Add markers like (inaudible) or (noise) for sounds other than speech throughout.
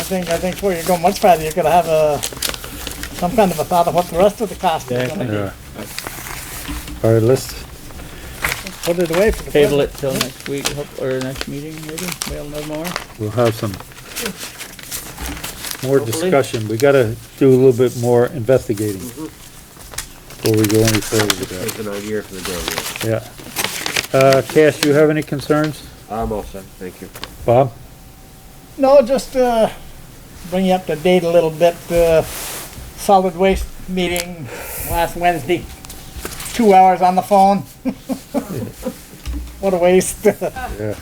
think, I think before you go much further, you could have a, some kind of a thought of what the rest of the cost is gonna be. Yeah. All right, let's, Put it away for the. Table it present. till next week, hope- or next meeting, maybe, we'll know more. we'll have some more Hopefully. discussion. We gotta do a little bit more investigating before we go any further with that. It's an idea for the day. Yeah. Uh, Cash, you have any concerns? yeah. I'm all set, thank you. Bob? No, just, uh, bring you up to date a little bit, uh, solid waste meeting last Wednesday, two hours on the phone. (laughs) What a waste. Yeah.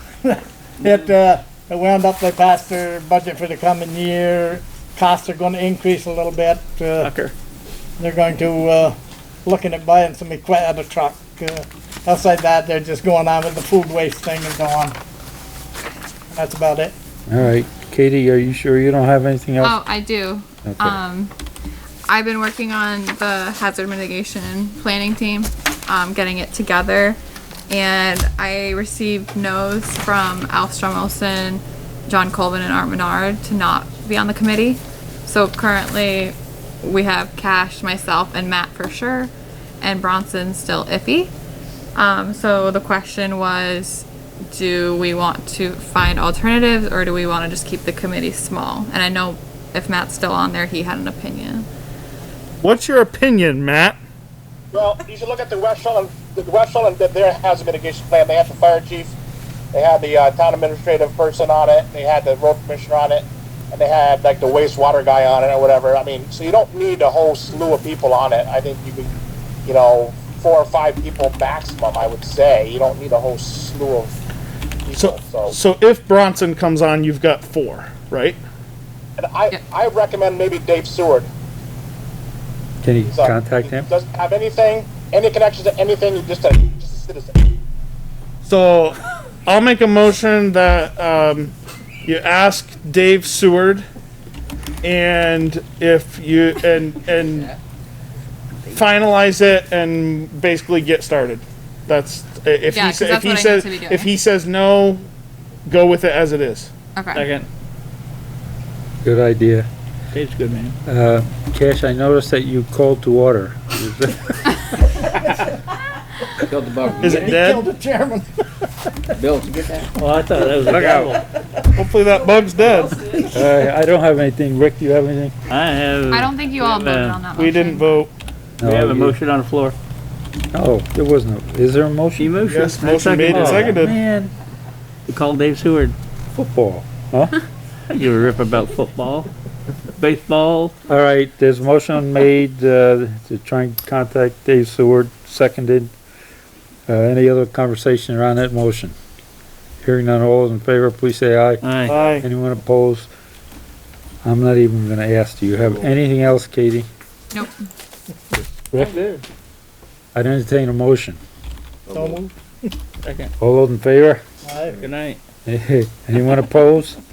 It, uh, it wound up, they passed their budget for the coming year, costs are gonna increase a little bit, uh, Tucker, they're going to, uh, looking at buying some equip, other truck, uh, outside that, they're just going on with the food waste thing and so on. That's about it. All right. Katie, are you sure you don't have anything else? Oh, I do. Okay. Um, I've been working on the hazard mitigation planning team, um, getting it together. And I received no's from Alf Olson, John Colvin, and Art Menard to not be on the committee. So currently, we have Cash, myself, and Matt for sure, and Bronson still iffy. Um, so the question was, do we want to find alternatives or do we want to just keep the committee small? And I know if Matt's still on there, he had an opinion. What's your opinion, Matt? Well, you should look at the West Shoreland, the West Shoreland, that their hazard mitigation plan, they have the fire chief, they had the, uh, town administrative person on it, they had the road commissioner on it, and they had like the wastewater guy on it or whatever, I mean, so you don't need a whole slew of people on it, I think you could, you know, four or five people maximum, I would say, you don't need a whole slew of So, people, so. so if Bronson comes on, you've got four, right? And I, I recommend maybe Dave Seward, Can you he's, uh, contact he him? Doesn't have anything, any connections to anything, he's just a, just a citizen. So I'll make a motion that um, you ask Dave Seward, and if you and and finalize it and basically get started. That's if Yeah, he 'cause sa- if that's what I he need says to be doing. if he says no, go with it as it is. Okay. second, Good idea. Dave's a good man. Uh, Cash, I noticed that you called to order. Killed the bug. Is it He killed dead? the chairman. Bill, did you get that? Well, I thought that was a devil. Hopefully that bug's dead. Uh, I don't have anything. Rick, do you have anything? I have. I don't think you all Yeah, voted man. on that uh, We didn't vote. We have No, you- a motion on the floor. Oh, there was no, is there a motion? She Oh, motioned. Yes, I motion made and it. seconded. Man, We called Dave Seward. football, huh? You a rip about football, baseball. All right, there's a motion made, uh, to try and contact Dave Seward, seconded. Uh, any other conversation around that motion? Hearing none, all those in favor, please say aye. Aye. Aye. Anyone opposed? I'm not even gonna ask. Do you have anything else, Katie? Nope. I'd entertain a motion. So moved. Second. All those in favor? (laughs) Aye. Good night. Anyone opposed?